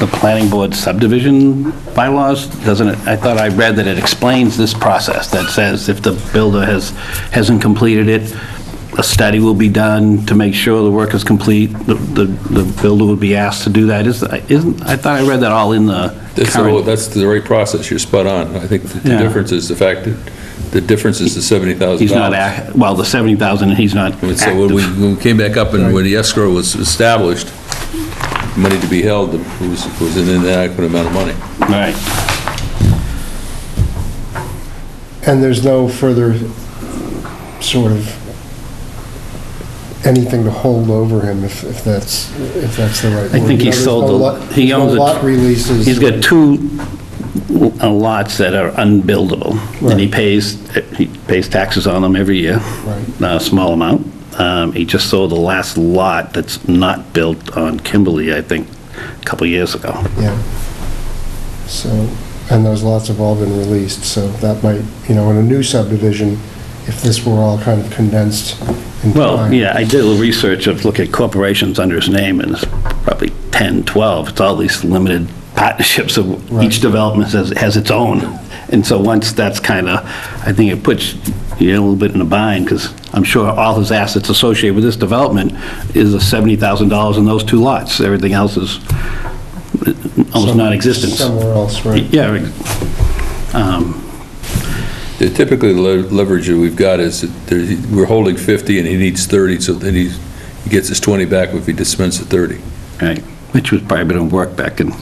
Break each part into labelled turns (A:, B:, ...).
A: the planning board subdivision bylaws, doesn't it? I thought I read that it explains this process, that says if the builder has, hasn't completed it, a study will be done to make sure the work is complete, the, the the builder would be asked to do that, Is- isn't, I thought I read that all in the
B: That's the, whole-
A: current.
B: that's the right process, you're spot on. I think the- the
A: Yeah.
B: difference is the fact that, the difference is the $70,000.
A: He's not, ac- well, the 70,000, he's not
B: And So when we,
A: active.
B: when we came back up and when the escrow was established, money to be held was, was an inadequate amount of money.
A: Right.
C: And there's no further sort of anything to hold over him if, if that's, if that's the right word.
A: I think he
C: You know, there's
A: sold
C: no
A: the-
C: lot-
A: he
C: no
A: owns it.
C: Lot releases.
A: He's got two l- lots that are unbuildable, and he
C: Right.
A: pays, he pays taxes on them every year,
C: Right.
A: a small amount. Um, He just sold the last lot that's not built on Kimberly, I think, a couple years ago.
C: Yeah. So, and those lots have all been released, so that might, you know, in a new subdivision, if this were all kind of condensed in time.
A: Well, yeah, I did a little research of, look at corporations under his name, and it's probably 10, 12, it's all these limited partnerships of, each
C: Right.
A: development has, has its own. And so once that's kind of, I think it puts you in a little bit in a bind, because I'm sure all his assets associated with this development is the $70,000 in those two lots. Everything else is uh, almost
C: Some-
A: non-existent.
C: Somewhere else, right?
A: Yeah, um,
B: The- Typically, the le- leverage that we've got is that there- we're holding 50 and he needs 30, so then he's, he gets his 20 back if he dispenses the 30.
A: right, which was probably going to work back in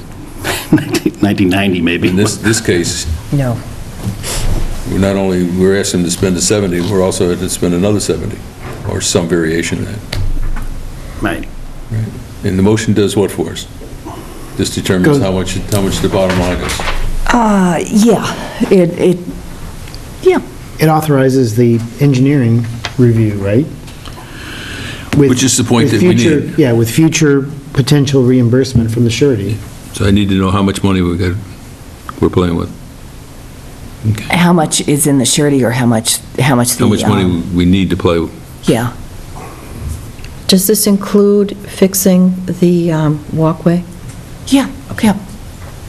A: 1990, maybe.
B: In this, this case,
D: No.
B: we're not only, we're asking him to spend the 70, we're also to spend another 70, or some variation of that.
A: Right.
B: And the motion does what for us? This determines
C: Good.
B: how much, how much the bottom line is.
D: Uh, yeah, it, it, yeah.
E: It authorizes the engineering review, right? With-
B: Which is the point
E: with
B: that we
E: future-
B: need.
E: Yeah, with future potential reimbursement from the surety.
B: So I need to know how much money we got, we're playing with.
D: How much is in the surety or how much, how much the...
B: How much money
D: um,
B: we need to play with.
D: Yeah.
F: Does this include fixing the um, walkway?
D: Yeah, okay.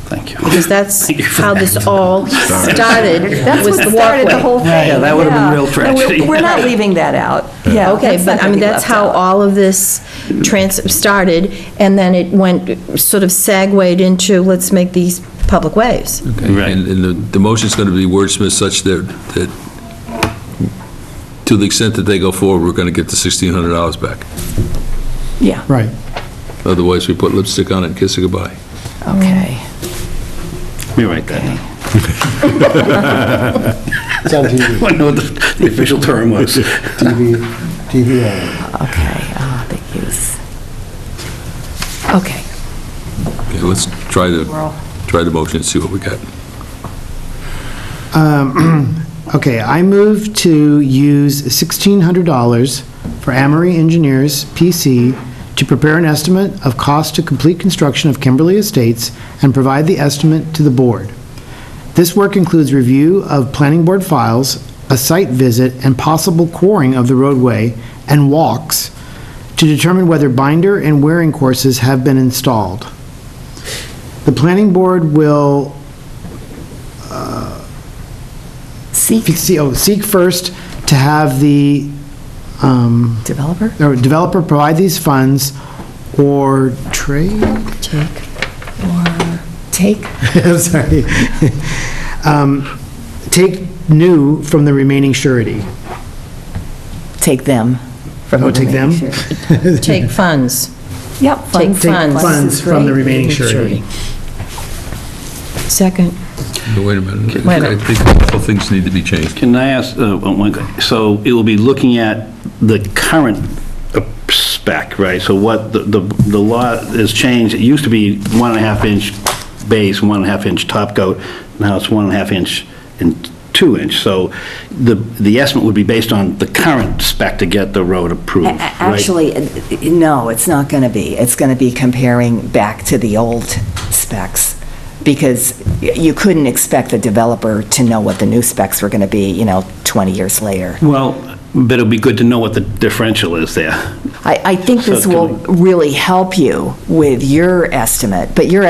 A: Thank you.
F: Because that's
A: Thank you for
F: how
A: that.
F: this all started,
D: That's
F: was
D: what
F: the
D: started the
F: walkway.
D: whole thing.
A: Yeah, that would've been real
D: And we're-
A: tragedy.
D: We're not leaving that out. Yeah.
F: Okay,
D: that's not
F: but I
D: gonna
F: mean,
D: be
F: that's
D: left
F: how
D: out.
F: all of this trans, started, and then it went, sort of segued into, let's make these public ways.
A: Right.
B: And, and the, the motion's gonna be wordsmith such that, that to the extent that they go forward, we're gonna get the sixteen hundred dollars back.
D: Yeah,
E: Right.
B: Otherwise, we put lipstick on it and kiss it goodbye.
D: okay.
A: We write that down.
C: It's on TV,
A: I know what the the official term was.
C: TV, TV ad.
F: Mm.
D: Okay, ah, the use. Okay.
B: Okay, let's try the, try the motion and see what we got.
E: Um, Okay, I move to use $1,600 for Amory Engineers, PC, to prepare an estimate of cost to complete construction of Kimberly Estates and provide the estimate to the board. This work includes review of planning board files, a site visit, and possible coring of the roadway and walks to determine whether binder and wearing courses have been installed. The planning board will
D: Seek
E: See- oh, seek first to have the, um,
D: developer?
E: or developer provide these funds or trade,
F: Take.
D: Take?
E: sorry, Um, take new from the remaining surety.
D: Take them. from
E: Oh,
D: the
E: take them?
D: remaining surety.
F: Take funds.
D: Yep.
F: Take
D: funds.
F: funds.
E: Funds from the remaining surety.
F: Second.
B: But Wait a minute.
F: Wait a
B: I
F: minute.
B: think a couple things need to be changed.
A: Can I ask, uh, one que- so it will be looking at the current uh, spec, right? So what, the, the the law has changed, it used to be one and a half inch base, one and a half inch top coat, now it's one and a half inch and two inch. So the, the estimate would be based on the current spec to get the road approved,
D: A- a-
A: right?
D: Actually, uh, no, it's not going to be. It's going to be comparing back to the old specs, because y- you couldn't expect the developer to know what the new specs were going to be, you know, 20 years later.
A: Well, but it'll be good to know what the differential is there.
D: I, I think
A: So
D: this
A: can
D: will really help you with your estimate, but your